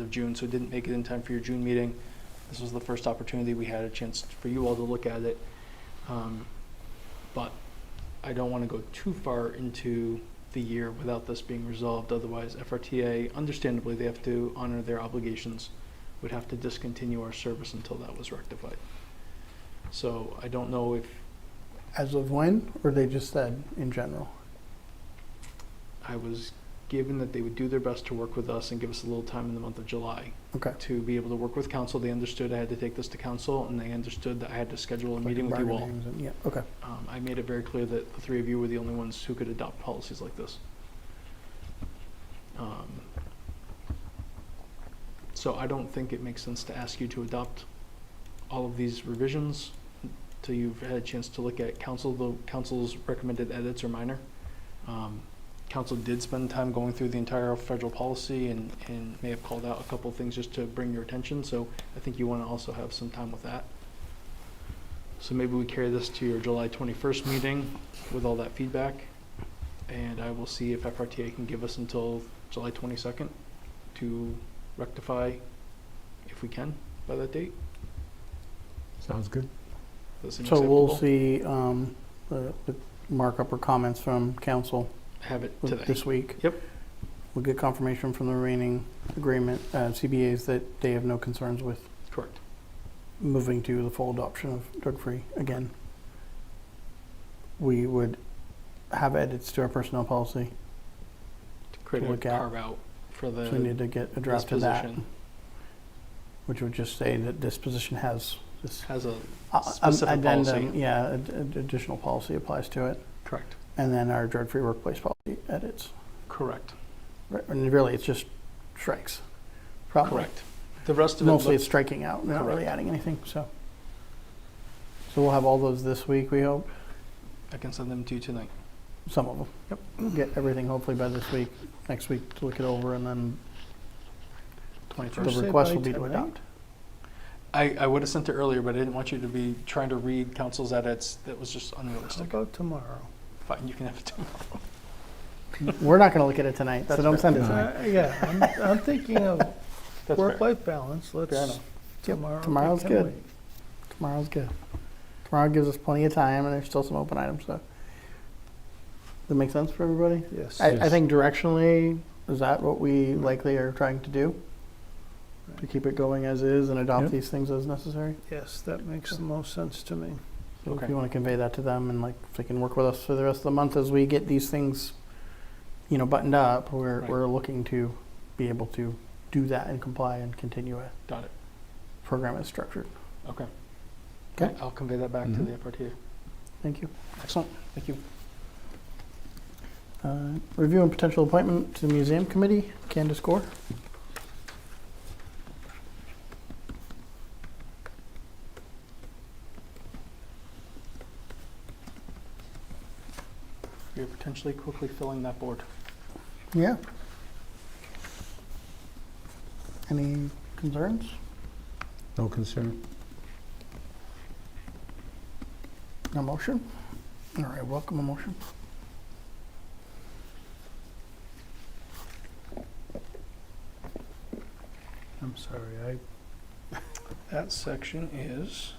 of June, so it didn't make it in time for your June meeting. This was the first opportunity we had a chance for you all to look at it. Um, But I don't want to go too far into the year without this being resolved. Otherwise, FRTA, understandably, they have to honor their obligations, would have to discontinue our service until that was rectified. So I don't know if As of when, or they just said in general? I was given that they would do their best to work with us and give us a little time in the month of July Okay. to be able to work with council. They understood I had to take this to council, and they understood that I had to schedule a Like meeting with you all. bargaining and- Yeah, okay. Um, I made it very clear that the three of you were the only ones who could adopt policies like this. Um, So I don't think it makes sense to ask you to adopt all of these revisions till you've had a chance to look at council, though council's recommended edits are minor. Um, Council did spend time going through the entire federal policy and, and may have called out a couple of things just to bring your attention, so I think you want to also have some time with that. So maybe we carry this to your July 21st meeting with all that feedback, and I will see if FRTA can give us until July 22nd to rectify, if we can, by that date. Sounds good. Does that seem So we'll acceptable? see um, the the markup or comments from council Have it with- today. this week. Yep. We'll get confirmation from the remaining agreement, uh, CBAs, that they have no concerns with Correct. moving to the full adoption of drug-free again. We would have edits to our personnel policy, To create a look at. carve out for so we need the to get a draft of that, disposition. which would just say that this position has this Has a, uh, um, Specific addendum. policy. Yeah, ad- ad- additional policy applies to it. correct, And then our drug-free workplace policy edits. correct, Right, And really, it's just strikes. Probably. correct. The rest of it Mostly looks it's striking out, We're not really Correct. adding anything, so. So we'll have all those this week, we hope, I can send them to you tonight. some of them. Yep. Get everything hopefully by this week, next week to look it over, and then the First say request by will be to tonight? adopt. I, I would have sent it earlier, but I didn't want you to be trying to read council's edits. That was just How unrealistic. about tomorrow? Fine, you can have it tomorrow. We're not gonna look at it tonight, so That's don't fair. send it tonight. Uh, Yeah, I'm, I'm thinking of That's fair. work-life balance, let's, enough. tomorrow. tomorrow's can good. wait. Tomorrow's good. Tomorrow gives us plenty of time, and there's still some open items, so. That make sense for everybody? Yes. I, I think directionally, is that what we likely are trying to do? To keep it going as is and adopt Yep. these things as necessary? Yes, that makes the most sense to me. So Okay. If you want to convey that to them and like, if they can work with us for the rest of the month as we get these things, you know, buttoned up, we're, Right. we're looking to be able to do that and comply and continue a Got it. program as structured. Okay. Okay. I'll convey that back to Mhm. the FRTA. Thank you. Excellent. Thank you. Uh, Review and potential appointment to the museum committee, Candace Gore. You're potentially quickly filling that board. Yeah. Any concerns? No concern. A motion? All right, welcome a motion. I'm sorry, I, That section is,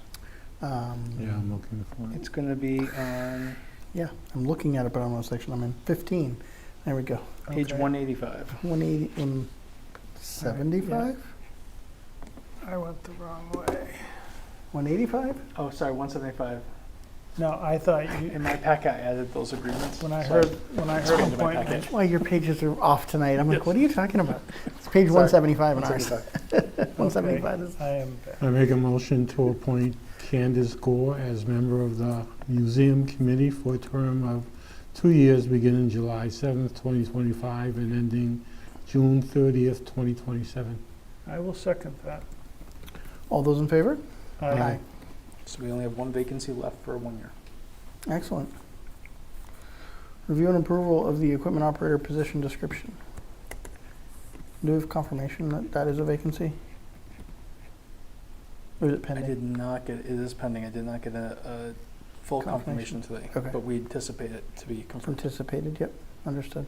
Um, yeah, I'm looking for it. it's going to be on Yeah, I'm looking at it, but I don't know what section I'm in. 15. There we go. page Okay. 185. 180 and 75? I went the wrong way. 185? Oh, sorry, 175. No, I thought you, In my packet, I added those agreements. when I Sorry. heard, when I It's heard going to my appointment, Why your pages are off tonight? I'm like, Yes. what are you talking about? It's page Sorry. 175 in ours. 175 is. I am back. I make a motion to appoint Candace Gore as member of the Museum Committee for a term of two years beginning July 7th, 2025 and ending June 30th, 2027. I will second that. All those in favor? Aye. So we only have one vacancy left for one year. Excellent. Review and approval of the equipment operator position description. Do we have confirmation that that is a vacancy? Or is it I pending? did not get, it is pending. I did not get a, a full confirmation Confirmation. today. Okay. But we anticipate it to be confirmed. Anticipated, yep, understood.